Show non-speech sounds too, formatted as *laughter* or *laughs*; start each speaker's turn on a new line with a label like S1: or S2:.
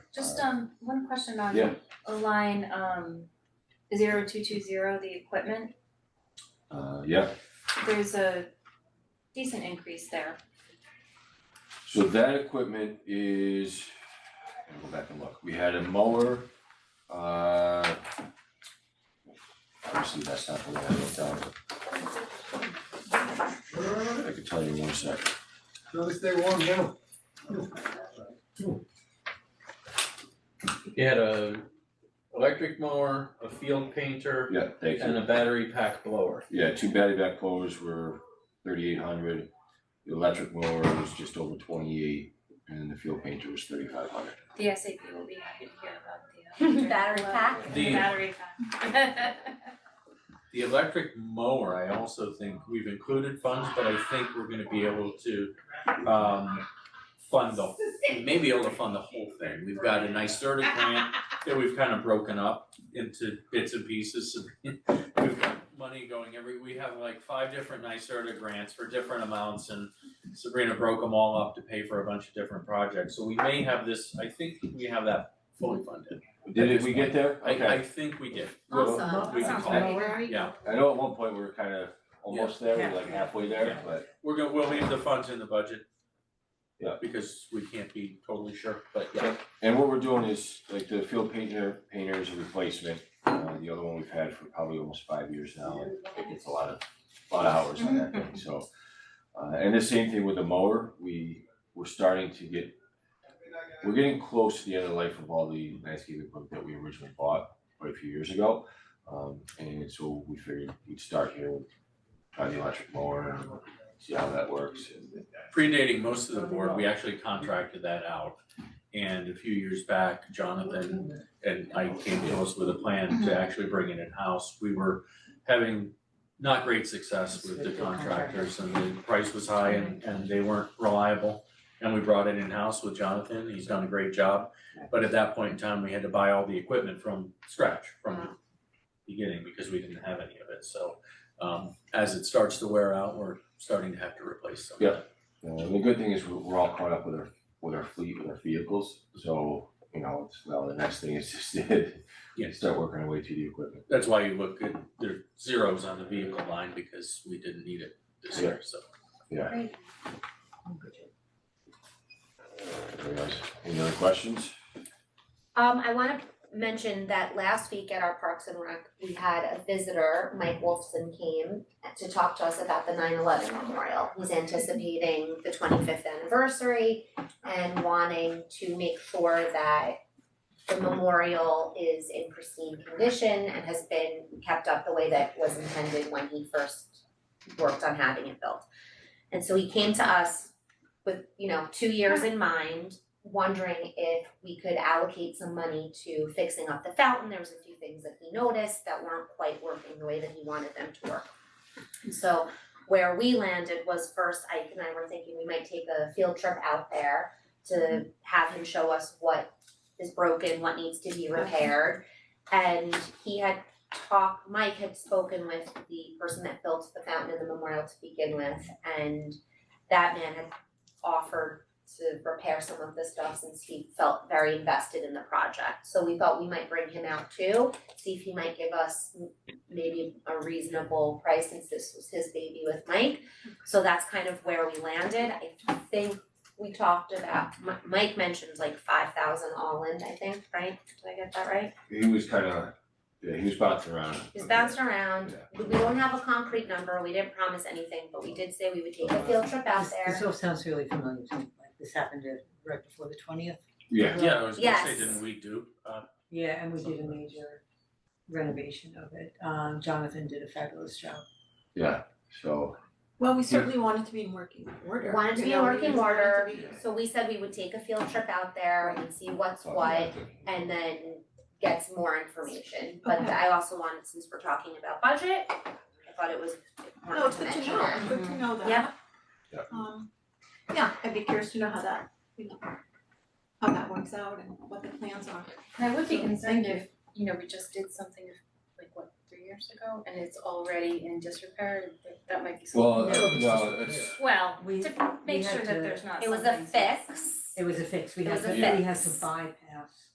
S1: Just um, one question on
S2: Yeah.
S1: a line, um, zero two two zero, the equipment,
S2: Uh, yeah,
S1: there's a decent increase there.
S2: so that equipment is, I'm gonna go back and look, we had a mower, uh. Obviously, that's not the one I looked at. I can tell you in one sec.
S3: Notice they were down.
S4: He had a electric mower, a field painter,
S2: Yeah, thank you.
S4: and a battery pack blower.
S2: Yeah, two batty back blowers were thirty-eight hundred, the electric mower was just over twenty-eight, and the field painter was thirty-five hundred.
S1: The SAP will be happy to hear about the uh,
S5: *laughs* Battery pack?
S1: the
S4: The-
S1: Battery pack. *laughs*
S4: The electric mower, I also think we've included funds, but I think we're gonna be able to um fund the, we may be able to fund the whole thing. We've got a NYSERDA grant that we've kind of broken up into bits and pieces. We've got money going every, we have like five different NYSERDA grants for different amounts and Sabrina broke them all up to pay for a bunch of different projects. So we may have this, I think we have that fully funded.
S2: Did we get there?
S4: I
S2: Okay,
S4: I think we did.
S2: Well,
S5: Awesome.
S4: we can
S5: Sounds
S4: call it.
S5: great.
S4: Yeah,
S2: I know at one point we were kind of almost there, we we're like halfway there,
S4: Yeah.
S2: but
S4: we're gonna, we'll leave the funds in the budget.
S2: Yeah.
S4: Because we can't be totally sure, but yeah,
S2: And what we're doing is, like, the field painter, painter is a replacement, uh, the other one we've had for probably almost five years now, and it gets a lot of, a lot of hours on that thing, so. Uh, and the same thing with the mower, we, we're starting to get, we're getting close to the end of the life of all the landscaping equipment that we originally bought quite a few years ago. Um, and so we figured we'd start here, with try the electric mower, and see how that works, and,
S4: predating most of the board, we actually contracted that out. And a few years back, Jonathan and I came to us with a plan to actually bring it in-house. We were having not great success with the contractors and the price was high and and they weren't reliable. And we brought it in-house with Jonathan, he's done a great job, but at that point in time, we had to buy all the equipment from scratch, from the beginning, because we didn't have any of it, so. Um, as it starts to wear out, we're starting to have to replace some of
S2: Yeah.
S4: that.
S2: You know, and the good thing is we're, we're all caught up with our, with our fleet, with our vehicles, so, you know, it's, well, the next thing is just *laughs* to
S4: Yes.
S2: start working our way through the equipment.
S4: That's why you look at, there are zeros on the vehicle line because we didn't need it this year, so.
S2: Anyways, any other questions?
S5: Um, I wanna mention that last week at our Parks and Rec, we had a visitor, Mike Wolfson came to talk to us about the 9/11 memorial. He's anticipating the twenty-fifth anniversary and wanting to make sure that the memorial is in pristine condition and has been kept up the way that was intended when he first worked on having it built. And so he came to us with, you know, two years in mind wondering if we could allocate some money to fixing up the fountain. There was a few things that he noticed that weren't quite working the way that he wanted them to work. And so where we landed was first Ike and I were thinking we might take a field trip out there to have him show us what is broken, what needs to be repaired. And he had talked, Mike had spoken with the person that built the fountain and the memorial to begin with. And that man had offered to repair some of the stuff since he felt very invested in the project. So we thought we might bring him out too, see if he might give us m- maybe a reasonable price since this was his baby with Mike. So that's kind of where we landed. I think we talked about, Mi- Mike mentioned like five thousand all in, I think, right? Did I get that right?
S2: He was kinda, yeah, he was bouncing around.
S5: He's bounced around.
S2: Yeah.
S5: We don't have a concrete number. We didn't promise anything, but we did say we would take a field trip out
S6: This- This
S5: there.
S6: all sounds really familiar to me, like this happened uh, right before the twentieth.
S2: Yeah,
S4: Yeah, I was gonna say,
S5: Yes.
S4: didn't we do, uh,
S6: Yeah, and we did a major renovation of it. Um, Jonathan did a fabulous job.
S2: yeah, so,
S7: Well, we certainly wanted to be in working order.
S5: Wanted to
S7: you
S5: be in
S7: know, we
S5: working
S7: just wanted to
S5: order.
S7: be-
S5: So we said we would take a field trip out there and see what's what and then get some more information. But
S7: Okay.
S5: I also wanted, since we're talking about budget, I thought it was
S7: No,
S5: important
S7: it's
S5: to
S7: good to
S5: mention
S7: know,
S5: that.
S7: good
S1: Mm-hmm.
S7: to know that.
S5: Yeah.
S2: Yeah.
S7: Um, yeah, I'd be curious to know how that, you know, how that works out and what the plans are.
S1: And I would be
S7: So,
S1: concerned
S7: thank you.
S1: if, you know, we just did something like what, three years ago, and it's already in disrepair, that- that might be something.
S2: Well,
S1: that-
S2: uh, no, it's,
S1: Well,
S6: We-
S1: to make
S6: had
S1: sure that
S6: to-
S1: there's not
S5: It was a
S1: *laughs* something-
S5: fix
S6: It was a fix, we
S5: It
S6: had
S5: was
S6: to,
S5: a
S6: we had to
S5: fix.
S6: bypass.